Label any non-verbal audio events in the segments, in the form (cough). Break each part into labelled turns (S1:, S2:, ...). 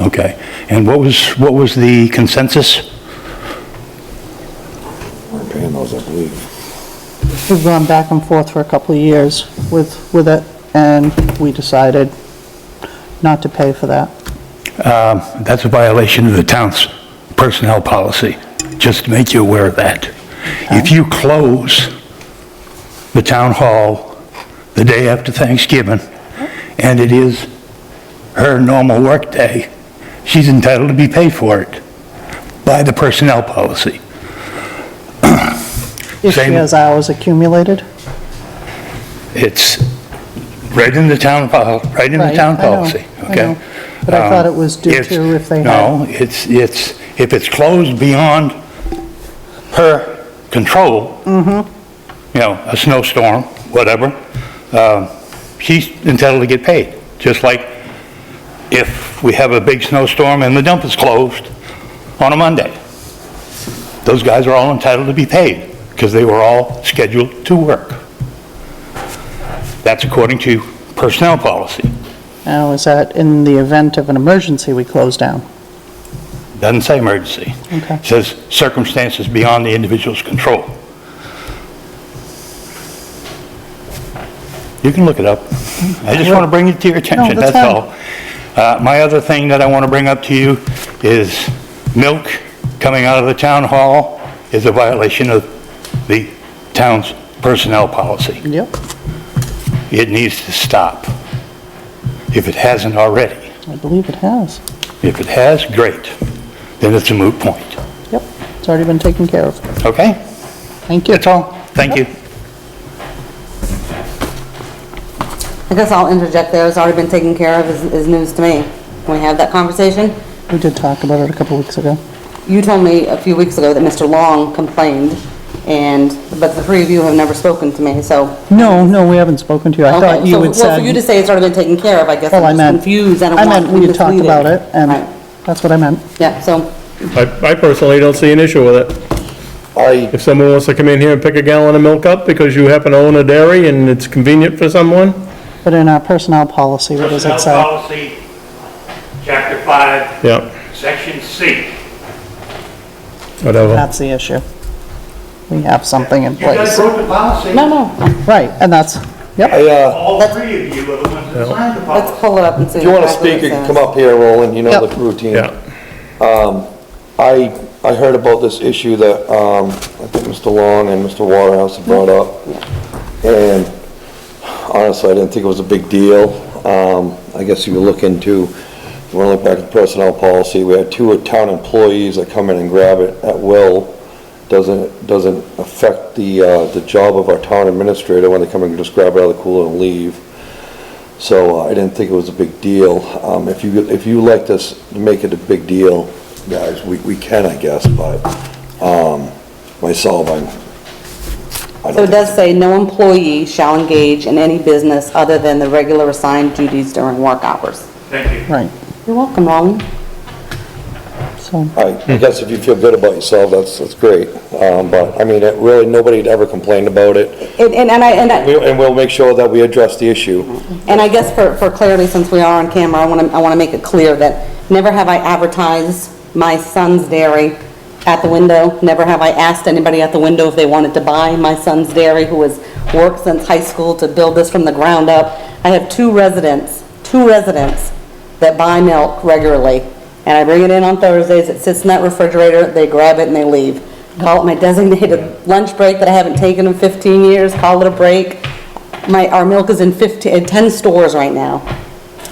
S1: Okay. And what was, what was the consensus?
S2: We're paying those, I believe.
S3: We've gone back and forth for a couple of years with, with it, and we decided not to pay for that.
S1: Um, That's a violation of the town's personnel policy, just to make you aware of that. If you close the town hall the day after Thanksgiving, and it is her normal workday, she's entitled to be paid for it by the personnel policy.
S3: If she
S1: Same.
S3: has hours accumulated.
S1: It's right in the town, pol- right in the
S3: Right,
S1: town
S3: I know,
S1: policy,
S3: I
S1: okay?
S3: know. But I thought
S1: Um,
S3: it was due to if they had-
S1: No, it's, it's, if it's closed beyond her control,
S3: Mm-hmm.
S1: you know, a snowstorm, whatever, um, she's entitled to get paid. Just like if we have a big snowstorm and the dump is closed on a Monday. Those guys are all entitled to be paid because they were all scheduled to work. That's according to personnel policy.
S3: Now, is that in the event of an emergency, we close down?
S1: Doesn't say emergency.
S3: Okay.
S1: Says circumstances beyond the individual's control. You can look it up. I just want to bring it to your attention,
S3: that's
S1: that's all. Uh, My other thing that I want to bring up to you is milk coming out of the town hall is a violation of the town's personnel policy.
S3: Yep.
S1: It needs to stop, if it hasn't already.
S3: I believe it has.
S1: If it has, great, then it's a moot point,
S3: Yep, it's already been taken care of.
S1: okay?
S3: Thank you.
S1: That's all, thank you.
S4: I guess I'll interject there, it's already been taken care of, is, is news to me. Can we have that conversation?
S3: We did talk about it a couple weeks ago.
S4: You told me a few weeks ago that Mr. Long complained, and, but the three of you have never spoken to me, so.
S3: No, no, we haven't spoken to you. I thought
S4: Okay,
S3: you
S4: so-
S3: had
S4: Well, for you to
S3: said,
S4: say it's already been taken care of, I guess
S3: well, I
S4: I'm just
S3: meant,
S4: confused, I don't
S3: I
S4: want
S3: meant
S4: to be
S3: we had talked
S4: misleading.
S3: about it, and
S4: Right.
S3: that's what I meant.
S4: Yeah, so,
S5: I I personally don't see an issue with it.
S2: I,
S5: If someone wants to come in here and pick a gallon of milk up because you happen to own a dairy and it's convenient for someone,
S3: But in our personnel policy, what does it
S6: Personnel
S3: say?
S6: policy, chapter five,
S5: yeah,
S6: section C.
S5: whatever.
S3: That's the issue. We have something in
S6: You guys
S3: place.
S6: broke the policy.
S4: no, no,
S3: Right, and that's, yep,
S2: I, uh,
S6: All three of you are the ones that signed the policy.
S4: let's pull it up and see.
S2: if you want to
S4: exactly
S2: speak, you
S4: what
S2: can
S4: it
S2: come
S4: says.
S2: up here, Roland, you know the
S3: Yep.
S2: routine.
S5: Yeah,
S2: I, I heard about this issue that, um, I think Mr. Long and Mr. Waterhouse had brought up. And honestly, I didn't think it was a big deal. Um, I guess you look into, if you want to look back at the personnel policy, we had two town employees that come in and grab it at will. Doesn't, doesn't affect the, uh, the job of our town administrator when they come and just grab it out of the cooler and leave. So uh, I didn't think it was a big deal. Um, If you, if you like this, make it a big deal, guys, we, we can, I guess, but um, myself, I'm, I
S4: So
S2: don't
S4: it does say, no employee shall engage in any business other than the regular assigned duties during work hours.
S6: Thank you.
S3: right,
S4: You're welcome, Long.
S3: so,
S2: I I guess if you feel good about yourself, that's, that's great. Um, But, I mean, it really, nobody had ever complained about it.
S4: And, and and I, and I.
S2: We- And we'll make sure that we address the issue.
S4: And I guess for, for clarity, since we are on camera, I want to, I want to make it clear that never have I advertised my son's dairy at the window. Never have I asked anybody at the window if they wanted to buy my son's dairy, who has worked since high school to build this from the ground up. I have two residents, two residents that buy milk regularly. And I bring it in on Thursdays, it sits in that refrigerator, they grab it and they leave. Call it my designated lunch break that I haven't taken in 15 years, call it a break. My, our milk is in 15, in 10 stores right now.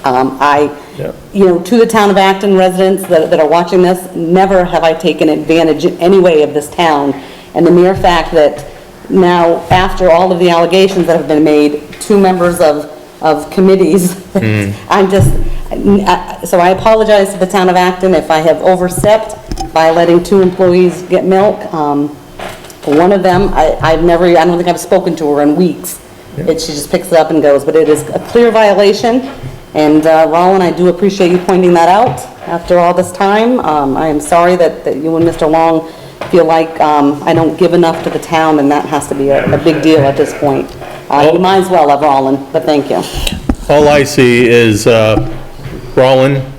S4: Um, I,
S5: Yeah.
S4: you know, to the town of Acton residents that, that are watching this, never have I taken advantage in any way of this town. And the mere fact that now, after all of the allegations that have been made, two members of, of committees, (laughs) I'm just, I- so I apologize to the town of Acton if I have overstepped by letting two employees get milk. Um, one of them, I, I've never, I don't think I've spoken to her in weeks. It, she just picks it up and goes, but it is a clear violation. And, uh, Roland, I do appreciate you pointing that out after all this time. Um, I am sorry that, that you and Mr. Long feel like, um, I don't give enough to the town and that has to be a, a big deal at this point. Uh, you might as well have Roland, but thank you.
S5: all I see is uh, Roland